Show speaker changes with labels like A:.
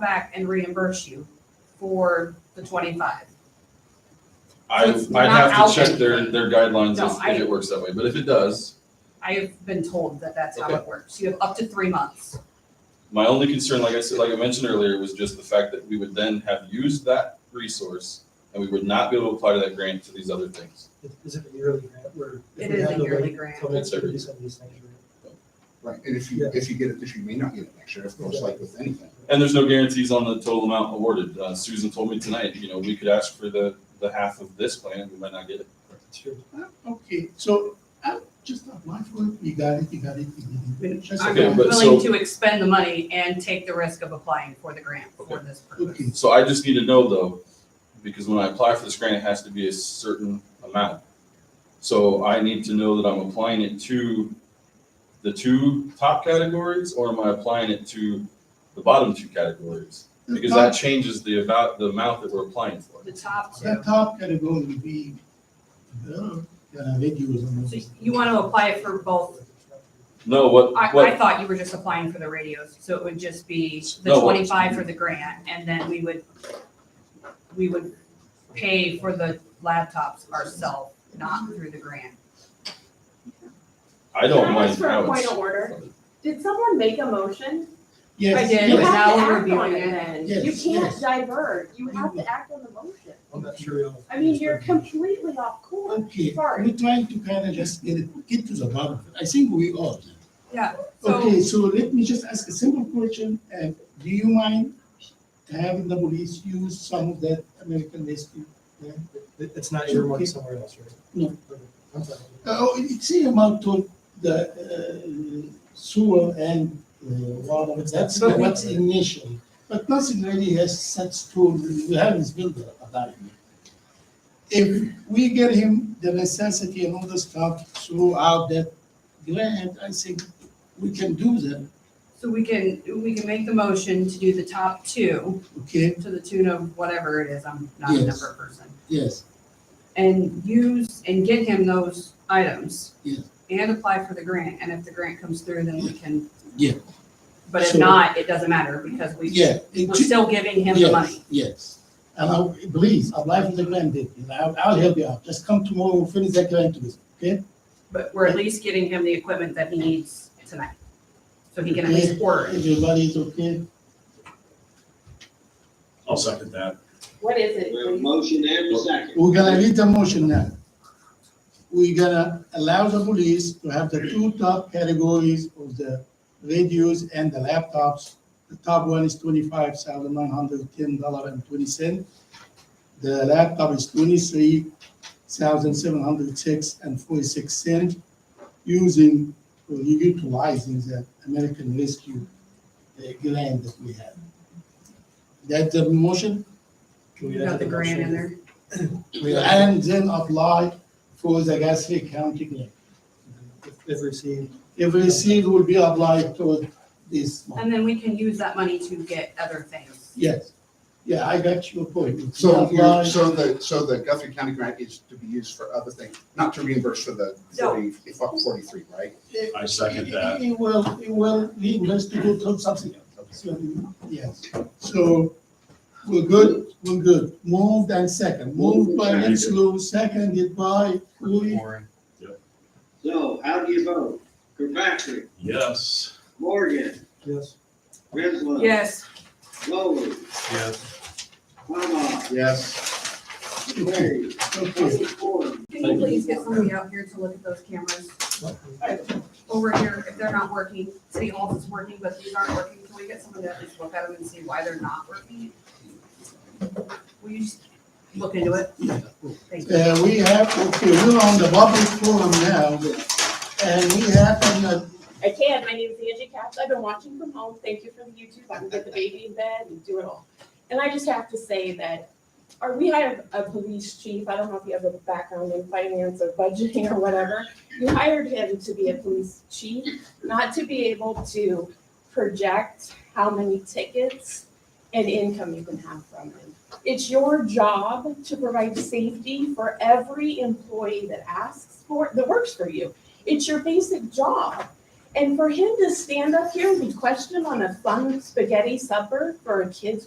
A: back and reimburse you for the twenty-five.
B: I,
A: So it's
B: I'd
A: not
B: have to check
A: out
B: their,
A: anything.
B: their guidelines
A: No,
B: if,
A: I-
B: if it works that way, but if it does,
A: I have been told that that's how it works. You have up to three months.
B: my only concern, like I said, like I mentioned earlier, was just the fact that we would then have used that resource and we would not be able to apply to that grant to these other things.
C: Is- Is it a yearly grant where?
A: It
C: if we
A: is
C: have
A: a
C: to
A: yearly
C: wait
A: grant.
C: till next year to
B: It's
C: do some of these things, right?
D: Right, and if you,
C: Yeah.
D: if you get it this year, you may not get it next year, of course, like with anything.
B: And there's no guarantees on the total amount awarded. Uh, Susan told me tonight, you know, we could ask for the, the half of this plan, we might not get it.
C: It's your-
E: Ah, Okay, so I'm just applying for it, you got it, you got it, you got it. That's
A: I'm
B: Okay,
E: all.
B: but
A: willing
B: so-
A: to expend the money and take the risk of applying for the grant for this purpose.
E: Okay,
B: So I just need to know though, because when I apply for this grant, it has to be a certain amount. So I need to know that I'm applying it to the two top categories, or am I applying it to the bottom two categories?
E: the
B: Because that
E: top,
B: changes the about, the amount that we're applying for.
A: The top
E: the
A: two.
E: top category will be, uh, yeah, radios and all
A: So
E: this.
A: you want to apply it for both.
B: No, what,
A: I, I
B: what,
A: thought you were just applying for the radios, so it would just be the
B: No, what-
A: twenty-five for the grant and then we would, we would pay for the laptops ourselves, not through the grant.
B: I don't
F: Can I
B: mind
F: ask for a
B: how
F: point of
B: it's.
F: order? Did someone make a motion?
A: I
E: Yes,
A: did,
F: You
A: but
E: yes,
A: now
F: have to
A: we're
F: act on
A: reviewing
F: it.
E: Yes,
F: You
E: yes.
F: can't divert, you have to act on the motion.
C: I'm not sure. how-
F: I mean, you're completely off course,
E: okay,
F: sorry.
E: we're trying to kind of just get it, get to the bottom. of it. I think we all.
A: Yeah, so
E: Okay, so let me just ask a simple question. Uh, do you mind having the police use some of that American Rescue? Plan?
C: It- It's not your money somewhere else, right?
E: No.
C: Okay, I'm sorry.
E: Oh, it's a amount to the uh, sewer and uh, water, that's
C: But we-
E: what's initially. But nothing really has such tool, we haven't built a a diamond. If we get him the necessity and all the stuff throughout that grant, I think we can do that,
A: So we can, we can make the motion to do the top two
E: okay?
A: to the tune of whatever it is, I'm not a
E: Yes.
A: number person.
E: Yes,
A: And use and get him those items.
E: Yes.
A: And apply for the grant, and if the grant comes through, then we can.
E: Yeah.
A: But if
E: So-
A: not, it doesn't matter because we,
E: yeah. it
A: we're
E: ju-
A: still giving him the
E: yes,
A: money.
E: Yes, and I, please, apply for the grant, Dick, and I'll, I'll help you out, just come tomorrow, finish that grant with, okay?
A: But we're at least getting him the equipment that he needs tonight. So he can at least
E: Okay,
A: order it.
E: Everybody's okay?
B: I'll second that.
F: What is it?
G: We have a motion and a second.
E: We're gonna read the motion now. We're gonna allow the police to have the two top categories of the radios and the laptops. The top one is twenty-five thousand nine hundred ten dollar and twenty cent. The laptop is twenty-three thousand seven hundred six and forty-six cent using, or utilizing the American Rescue uh, grant that we have. That's the motion?
C: Can we
A: You
C: add
A: got the
C: that
A: grant in
C: motion?
A: there.
E: and then apply for the Gaston County grant.
C: If- If received,
E: If received, will be applied to this one.
A: And then we can use that money to get other things.
E: Yes, yeah, I got your point.
D: So, you're-
E: Apply-
D: so the, so the Guthrie County grant is to be used for other things, not to reimburse for the
A: No.
D: forty, forty-three, right?
H: I second
E: It
H: that.
E: it will, it will lead us to go to something else. So, Yes, so we're good, we're good. Moved and second, moved by Rensselaer, seconded by Louis.
G: So how do you vote? Kirkpatrick,
H: Yes.
G: Morgan,
C: yes.
G: Griswold.
A: Yes,
G: Foley,
H: Yes.
G: Kavanaugh,
D: Yes.
G: Larry,
E: Okay,
G: Council Ford,
A: can you please get somebody out here to look at those cameras? over here, if they're not working, city hall is working, but these aren't working, can we get someone to at least look at them and see why they're not working? Will you just look into it? Thank you.
E: Uh, we have, okay, we're on the public forum now, and we have an
F: I can, my name is Angie Katz, I've been watching from home, thank you for the YouTube, I can get the baby in bed and do it all. And I just have to say that, or we have a police chief, I don't know if you have a background in finance or budgeting or whatever. You hired him to be a police chief, not to be able to project how many tickets and income you can have from them. It's your job to provide safety for every employee that asks for, that works for you. It's your basic job. And for him to stand up here and be questioned on a fun spaghetti supper for a kid's